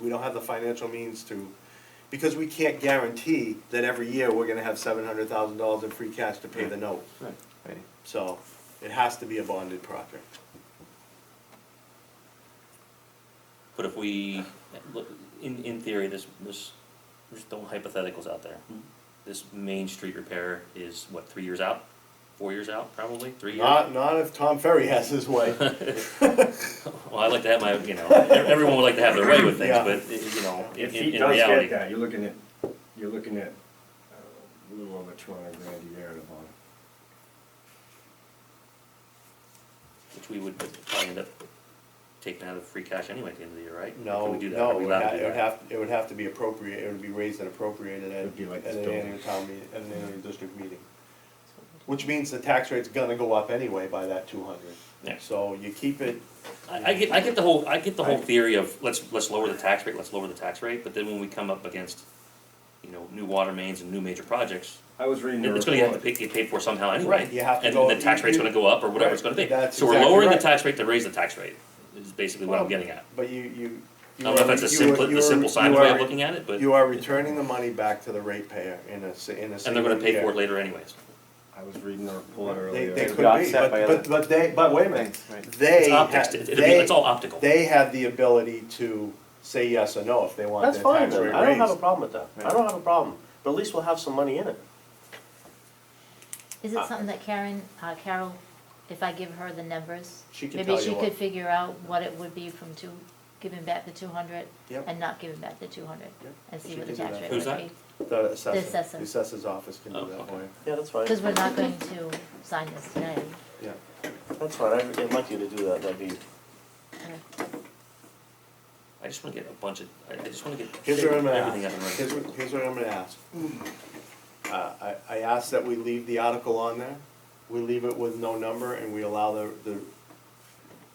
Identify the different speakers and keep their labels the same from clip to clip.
Speaker 1: we don't have the financial means to, because we can't guarantee that every year we're gonna have seven hundred thousand dollars in free cash to pay the note.
Speaker 2: Right.
Speaker 3: Right.
Speaker 1: So it has to be a bonded project.
Speaker 4: But if we, look, in, in theory, this, this, there's no hypotheticals out there.
Speaker 1: Hmm.
Speaker 4: This main street repair is what, three years out? Four years out, probably, three years?
Speaker 1: Not, not if Tom Ferry has his way.
Speaker 4: Well, I like to have my, you know, e-, everyone would like to have their way with things,
Speaker 1: Yeah.
Speaker 4: but, you know, in,
Speaker 2: If he
Speaker 4: in- in
Speaker 2: does
Speaker 4: reality.
Speaker 2: get that, you're looking at, you're looking at uh, a little over two hundred grand a year in the bond.
Speaker 4: Which we would probably end up taking out of free cash anyway at the end of the year, right?
Speaker 1: No,
Speaker 4: Can we do that? Are
Speaker 1: no,
Speaker 4: we
Speaker 1: it would
Speaker 4: allowed
Speaker 1: ha-
Speaker 4: to do
Speaker 1: it would
Speaker 4: that?
Speaker 1: have, it would have to be appropriate, it would be raised and appropriated at,
Speaker 2: It'd be like
Speaker 1: at
Speaker 2: this
Speaker 1: an
Speaker 2: building.
Speaker 1: annual town meeting, at an annual district meeting. Which means the tax rate's gonna go up anyway by that two hundred.
Speaker 4: Yeah.
Speaker 1: So you keep it,
Speaker 4: I, I get, I get the whole, I get the whole
Speaker 2: Right.
Speaker 4: theory of, let's, let's lower the tax rate, let's lower the tax rate, but then when we come up against, you know, new water mains and new major projects,
Speaker 2: I was reading
Speaker 4: It-
Speaker 2: the report.
Speaker 4: It's gonna have to pay, get paid for somehow anyway.
Speaker 1: Right, you have to go-
Speaker 4: And the tax rate's gonna go up or whatever it's gonna be.
Speaker 1: Right, that's
Speaker 4: So we're
Speaker 1: exactly
Speaker 4: lowering the
Speaker 1: right.
Speaker 4: tax rate to raise the tax rate, is basically what I'm
Speaker 1: Well,
Speaker 4: getting at.
Speaker 1: but you, you.
Speaker 4: I don't know if that's a simple, the simple science way of looking at it, but,
Speaker 1: You are returning the money back to the ratepayer in a, si- in a
Speaker 4: and they're
Speaker 1: single
Speaker 4: gonna pay for it
Speaker 1: year.
Speaker 4: later anyways.
Speaker 2: I was reading the report
Speaker 1: They,
Speaker 2: earlier.
Speaker 1: they could be,
Speaker 3: offset
Speaker 1: but,
Speaker 3: by
Speaker 1: but,
Speaker 3: other
Speaker 1: but they, but wait a minute,
Speaker 3: Things, right.
Speaker 1: they,
Speaker 4: It's optics,
Speaker 1: ha-
Speaker 4: it- it'll be,
Speaker 1: they,
Speaker 4: it's all optical.
Speaker 1: they have the ability to say yes or no if they want
Speaker 5: That's
Speaker 1: their
Speaker 5: fine,
Speaker 1: tax rate
Speaker 5: then.
Speaker 1: raised.
Speaker 5: I don't have a problem with that, I don't have a problem, but at least we'll have some money in it.
Speaker 6: Is it something that Karen, uh, Carol, if I give her the numbers?
Speaker 1: She can tell you
Speaker 6: Maybe
Speaker 1: what-
Speaker 6: she could figure out what it would be from two, giving back the two hundred
Speaker 1: Yep.
Speaker 6: and not giving back the two hundred?
Speaker 1: Yep.
Speaker 6: And see
Speaker 1: She
Speaker 6: what the
Speaker 1: can do
Speaker 6: tax
Speaker 1: that.
Speaker 6: rate would be?
Speaker 4: Who's that?
Speaker 1: The assessor, the
Speaker 6: assessor.
Speaker 1: assessor's office can
Speaker 4: Oh,
Speaker 1: do that
Speaker 4: okay.
Speaker 1: for you,
Speaker 5: Yeah, that's fine,
Speaker 6: Because we're not going to sign this today.
Speaker 1: yeah.
Speaker 5: that's fine, I'd I'd like you to do that, that'd be,
Speaker 4: I just wanna get a bunch of, I I just wanna get
Speaker 1: Here's what I'm
Speaker 4: everything
Speaker 1: gonna
Speaker 4: up and
Speaker 1: ask, here's
Speaker 4: running.
Speaker 1: what, here's what I'm gonna ask. Uh, I, I ask that we leave the article on there, we leave it with no number and we allow the, the,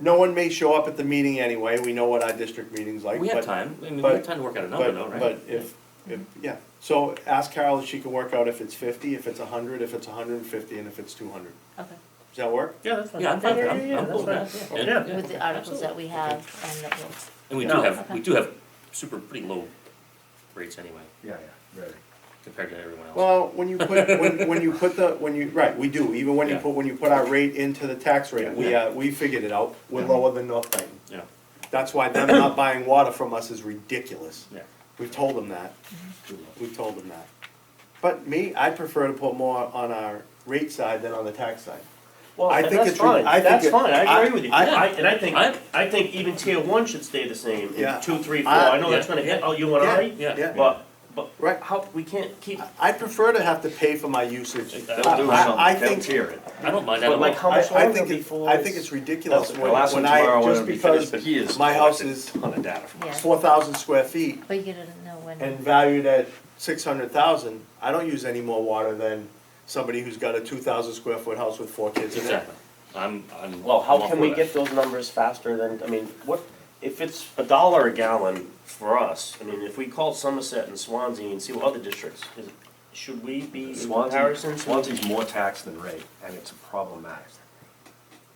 Speaker 1: no one may show up at the meeting anyway, we know what our district meeting's like,
Speaker 4: We
Speaker 1: but-
Speaker 4: have time, I mean, we
Speaker 1: but-
Speaker 4: have time to work out a number
Speaker 1: but-
Speaker 4: though, right?
Speaker 1: But if, if, yeah, so ask Carol if she can work out if it's fifty, if it's a hundred, if it's hundred and fifty, and if it's two hundred.
Speaker 6: Okay,
Speaker 1: Does that work?
Speaker 5: yeah, that's fine.
Speaker 4: Yeah, I'm fine,
Speaker 5: Yeah,
Speaker 4: I'm,
Speaker 5: yeah, yeah,
Speaker 4: I'm cool with
Speaker 5: that's
Speaker 4: that,
Speaker 5: fine.
Speaker 4: yeah.
Speaker 5: Yeah.
Speaker 4: and-
Speaker 6: with the
Speaker 4: yeah,
Speaker 6: articles that we
Speaker 4: absolutely.
Speaker 6: have and that we'll,
Speaker 4: And we do
Speaker 2: Yeah.
Speaker 4: have, we
Speaker 6: Okay.
Speaker 4: do have super, pretty low rates anyway,
Speaker 2: Yeah, yeah, really.
Speaker 4: compared to everyone else.
Speaker 1: Well, when you put, when, when you put the, when you, right, we do, even when you
Speaker 4: Yeah.
Speaker 1: put, when you put our rate into the tax rate, we,
Speaker 4: Yeah.
Speaker 1: uh, we figured it out, we're
Speaker 4: Yeah.
Speaker 1: lower than North Dayton.
Speaker 4: Yeah,
Speaker 1: That's why them not buying water from us is ridiculous.
Speaker 4: yeah.
Speaker 1: We've told them that,
Speaker 2: too low.
Speaker 1: we've told them that. But me, I prefer to put more on our rate side than on the tax side.
Speaker 5: Well,
Speaker 1: I
Speaker 5: and
Speaker 1: think
Speaker 5: that's
Speaker 1: it's re-
Speaker 5: fine,
Speaker 1: I think
Speaker 5: that's
Speaker 1: it-
Speaker 5: fine,
Speaker 1: I-
Speaker 5: I agree with you,
Speaker 1: I-
Speaker 5: I, and I think,
Speaker 4: I-
Speaker 5: I think even tier one should stay the same,
Speaker 1: Yeah.
Speaker 5: in two, three, four,
Speaker 1: I-
Speaker 5: I know that's
Speaker 4: yeah.
Speaker 5: gonna hit, oh, you and
Speaker 1: Yeah.
Speaker 5: I?
Speaker 4: Yeah.
Speaker 1: Yeah.
Speaker 5: But, but,
Speaker 1: Right.
Speaker 5: how, we can't keep,
Speaker 1: I prefer to have to pay for my usage.
Speaker 4: They'll
Speaker 1: I-
Speaker 4: do
Speaker 1: I, I
Speaker 2: They'll
Speaker 1: think,
Speaker 2: tier it.
Speaker 4: I don't mind that at
Speaker 5: but
Speaker 4: all.
Speaker 5: like, how
Speaker 1: I,
Speaker 5: much
Speaker 1: I
Speaker 5: longer
Speaker 1: think, it-
Speaker 5: before?
Speaker 1: I think it's ridiculous
Speaker 5: That's-
Speaker 1: when,
Speaker 2: The last one
Speaker 1: when I,
Speaker 2: tomorrow won't
Speaker 1: just
Speaker 2: be
Speaker 1: because
Speaker 2: finished, but he is
Speaker 1: my house is
Speaker 2: Ton of data.
Speaker 6: yeah,
Speaker 1: four thousand square feet
Speaker 6: but you don't know when.
Speaker 1: and valued at six hundred thousand, I don't use any more water than somebody who's got a two thousand square foot house with four kids in it.
Speaker 4: Exactly. I'm, I'm.
Speaker 5: Well,
Speaker 4: I'm
Speaker 5: how
Speaker 4: all
Speaker 5: can
Speaker 4: for
Speaker 5: we
Speaker 4: that.
Speaker 5: get those numbers faster than, I mean, what, if it's a dollar a gallon for us, I mean, if we call Somerset and Swansea and see what other districts, is, should we be in
Speaker 2: Swansea,
Speaker 5: comparison?
Speaker 2: Swansea's more taxed than rate, and it's problematic.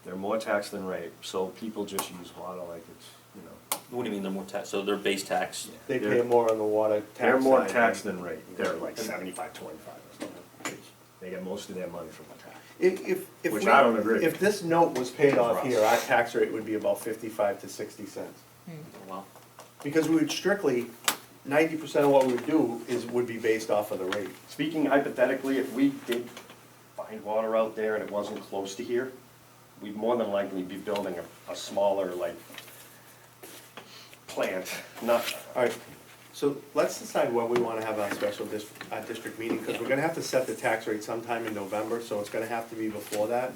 Speaker 2: They're more taxed than rate, so people just use water like it's, you know.
Speaker 4: What do you mean they're more tax, so they're base tax?
Speaker 1: They pay
Speaker 2: They're-
Speaker 1: more on the water tax
Speaker 2: They're more
Speaker 1: side.
Speaker 2: taxed than rate, they're like seventy-five, twenty-five or something. They get most of their money from the tax.
Speaker 1: If, if, if
Speaker 2: Which
Speaker 1: we-
Speaker 2: I don't agree.
Speaker 1: If this note was paid off
Speaker 2: For us.
Speaker 1: here, our tax rate would be about fifty-five to sixty cents.
Speaker 4: Wow.
Speaker 1: Because we would strictly, ninety percent of what we would do is, would be based off of the rate.
Speaker 2: Speaking hypothetically, if we did find water out there and it wasn't close to here, we'd more than likely be building a, a smaller like plant, not,
Speaker 1: Alright, so let's decide when we wanna have our special district, our district meeting, cause we're gonna have to set the tax rate sometime in November, so it's gonna have to be before that.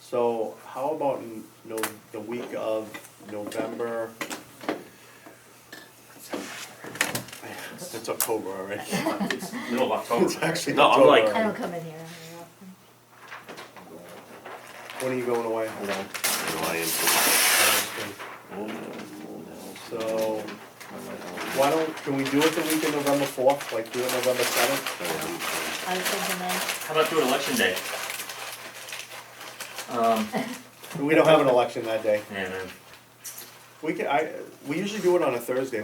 Speaker 1: So how about in, no, the week of November? It's October already.
Speaker 5: It's middle of October.
Speaker 1: It's actually
Speaker 5: No, I'm
Speaker 1: October
Speaker 5: like,
Speaker 6: I
Speaker 1: already.
Speaker 6: don't come in here. very often.
Speaker 1: When are you going away?
Speaker 2: you know,
Speaker 1: So, why don't, can we do it the week of November fourth, like do it November seventh?
Speaker 6: I was thinking that,
Speaker 5: how about doing election day?
Speaker 1: We don't have an election that day.
Speaker 5: Yeah, man. um,
Speaker 1: We can, I, we usually do it on a Thursday,